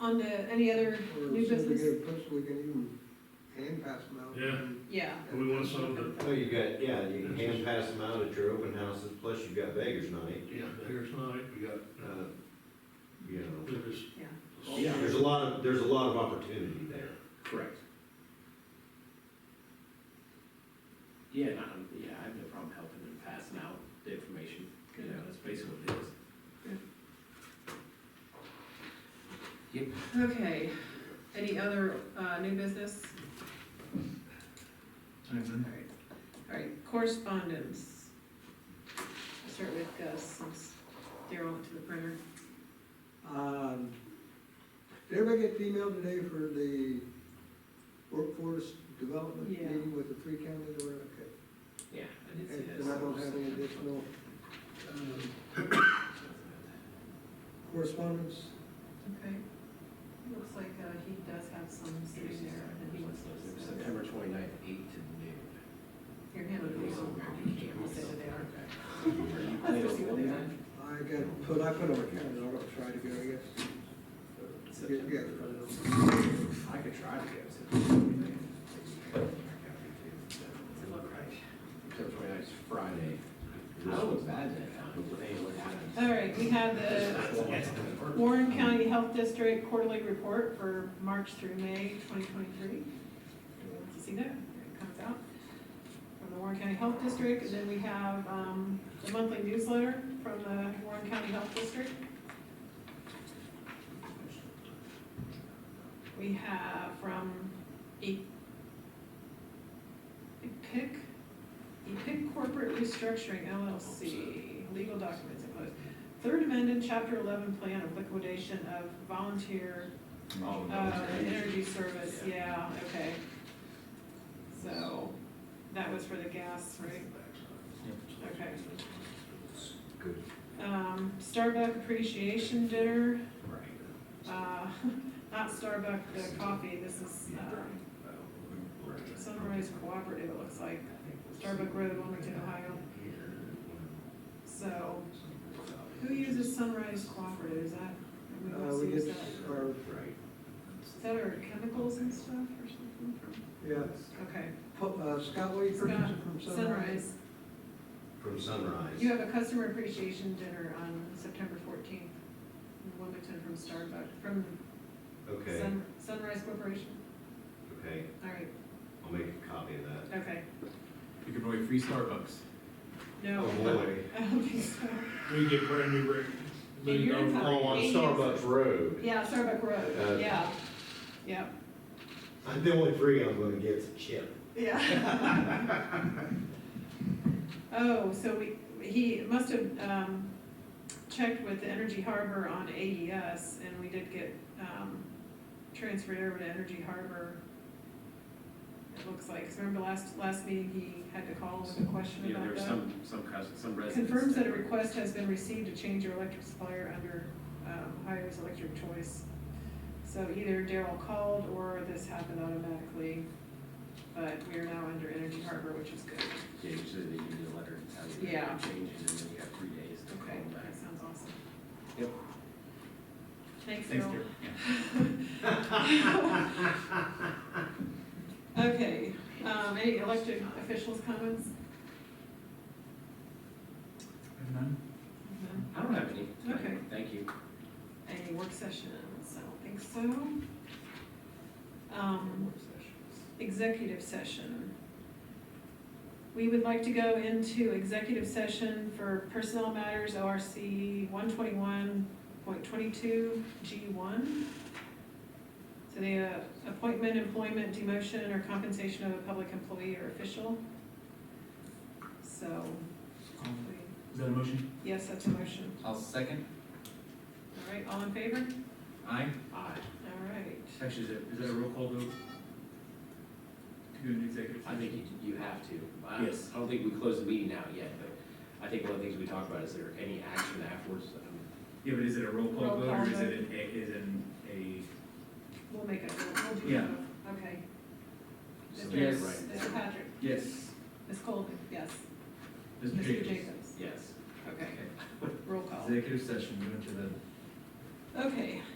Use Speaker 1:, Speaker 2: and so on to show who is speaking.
Speaker 1: On to any other, New business?
Speaker 2: we can even hand pass them out.
Speaker 3: Yeah.
Speaker 1: yeah,
Speaker 3: Do we want some of
Speaker 4: Well, you got, yeah, you can hand pass them out at your open houses, plus you've got beggars night,
Speaker 3: Yeah, here's night, we got,
Speaker 4: uh, you know.
Speaker 3: there's.
Speaker 1: Yeah.
Speaker 5: Yeah.
Speaker 4: There's a lot of, there's a lot of opportunity there.
Speaker 5: Correct. Yeah, and I'm, yeah, I have no problem helping them passing out the information, you know, that's basically what it is.
Speaker 1: okay. Any other, uh, new business? All right, all right, correspondence. I'll Start with Gus, since Daryl went to the printer.
Speaker 2: Um, Did everybody get the email today for the workforce development
Speaker 1: Yeah.
Speaker 2: meeting with the three counties or, okay?
Speaker 5: Yeah, I did see that.
Speaker 2: And I don't have any additional um, correspondence.
Speaker 1: Okay. Looks like, uh, he does have some sitting there that he wants to send.
Speaker 5: September twenty-ninth, eight to noon.
Speaker 1: Your hand would be on there, you can't say that they are.
Speaker 5: Are you available then?
Speaker 2: I got, put, I put on my calendar, I'll try to go, I guess. Get-
Speaker 5: September.
Speaker 2: get it.
Speaker 5: I could try to get September twenty-ninth. September twenty-ninth is Friday. I look bad that time, but hey, what happens?
Speaker 1: Oh. All right, we have the Warren County Health District Quarterly Report for March through May 2023. Anyone want to see that? It comes out from the Warren County Health District. And then we have um, the monthly newsletter from the Warren County Health District. We have from E- EPIC, EPIC Corporate Restructuring LLC, legal documents included. Third amended, chapter eleven plan of liquidation of volunteer,
Speaker 5: Oh, no,
Speaker 1: uh,
Speaker 5: it's-
Speaker 1: energy service,
Speaker 5: Yeah.
Speaker 1: yeah, okay. So, that was for the gas, right? Okay.
Speaker 4: Good.
Speaker 1: Um, Starbucks appreciation dinner,
Speaker 5: Right.
Speaker 1: uh, not Starbucks, the coffee, this is, uh, Sunrise Cooperative, it looks like, Starbuck Road, Wilmington, Ohio. So, who uses Sunrise Cooperative, is that, and we
Speaker 2: Uh,
Speaker 1: also
Speaker 2: we
Speaker 1: use
Speaker 2: get
Speaker 1: that?
Speaker 2: our,
Speaker 5: Right.
Speaker 1: Is that our chemicals and stuff or something?
Speaker 2: yeah,
Speaker 1: Okay,
Speaker 2: Po- uh, Scott, what you
Speaker 1: Scott,
Speaker 2: purchasing from Sunrise?
Speaker 1: Sunrise,
Speaker 4: From sunrise.
Speaker 1: you have a customer appreciation dinner on September fourteenth in Wilmington from Starbuck, from
Speaker 4: Okay,
Speaker 1: Sun, Sunrise Corporation,
Speaker 4: okay,
Speaker 1: all right,
Speaker 4: I'll make a copy of that.
Speaker 1: okay,
Speaker 5: You can buy free Starbucks.
Speaker 1: no.
Speaker 4: Oh, boy.
Speaker 1: I don't think so,
Speaker 3: We get brand new brick.
Speaker 1: And you're in
Speaker 4: Oh, on Starbucks Road.
Speaker 1: yeah, Starbuck
Speaker 4: Uh,
Speaker 1: Road, yeah, yeah,
Speaker 4: I'm the only free I'm gonna get is a chip.
Speaker 1: yeah. Oh, so we, he must have, um, checked with the Energy Harbor on AES, and we did get, um, transferred over to Energy Harbor. It looks like, 'cause remember last, last meeting, he had to call with a question
Speaker 5: Yeah,
Speaker 1: about
Speaker 5: there's
Speaker 1: that?
Speaker 5: some, some cus, some residents.
Speaker 1: Confirms that a request has been received to change your electric supplier under um, Ohio's electric choice. So either Daryl called or this happened automatically, but we are now under Energy Harbor, which is good.
Speaker 5: Yeah, you said that you need a letter to tell you that
Speaker 1: Yeah.
Speaker 5: you're changing, and then you have three days to call
Speaker 1: Okay,
Speaker 5: them back.
Speaker 1: that sounds awesome.
Speaker 5: Yep.
Speaker 1: Thanks,
Speaker 5: Thanks,
Speaker 1: Daryl.
Speaker 5: Derek.
Speaker 1: Okay, um, any elected officials' comments? None?
Speaker 5: I don't have any.
Speaker 1: Okay.
Speaker 5: Thank you.
Speaker 1: Any work sessions? I don't think so. Um, executive session. We would like to go into executive session for personnel matters, ORC one twenty-one point twenty-two G one. So the uh, appointment, employment, demotion, or compensation of a public employee or official. So, we-
Speaker 6: Is that a motion?
Speaker 1: yes, that's a motion.
Speaker 6: I'll second.
Speaker 1: All right, all in favor?
Speaker 6: Aye.
Speaker 5: Aye.
Speaker 1: All right.
Speaker 6: Actually, is it, is that a roll call vote? To do an executive
Speaker 5: I
Speaker 6: session?
Speaker 5: think you, you have to. I-
Speaker 6: Yes.
Speaker 5: I don't think we closed the meeting out yet, but I think one of the things we talked about is there any action afterwards? Um,
Speaker 6: Yeah, but is it a roll
Speaker 1: Roll
Speaker 6: call vote or
Speaker 1: call
Speaker 6: is
Speaker 1: vote.
Speaker 6: it an, a- is an a?
Speaker 1: We'll make it, we'll do it.
Speaker 6: Yeah.
Speaker 1: Okay.
Speaker 5: so
Speaker 1: Mr.
Speaker 5: we have to
Speaker 6: Yes.
Speaker 5: write
Speaker 1: Mr.
Speaker 5: down.
Speaker 1: Patrick,
Speaker 6: Yes.
Speaker 1: Ms. Colvin, yes.
Speaker 6: Mr.
Speaker 1: Mr.
Speaker 6: Jacobs?
Speaker 1: Jacobs,
Speaker 5: Yes.
Speaker 1: okay, roll call.
Speaker 6: Executive session, go into the
Speaker 1: Okay,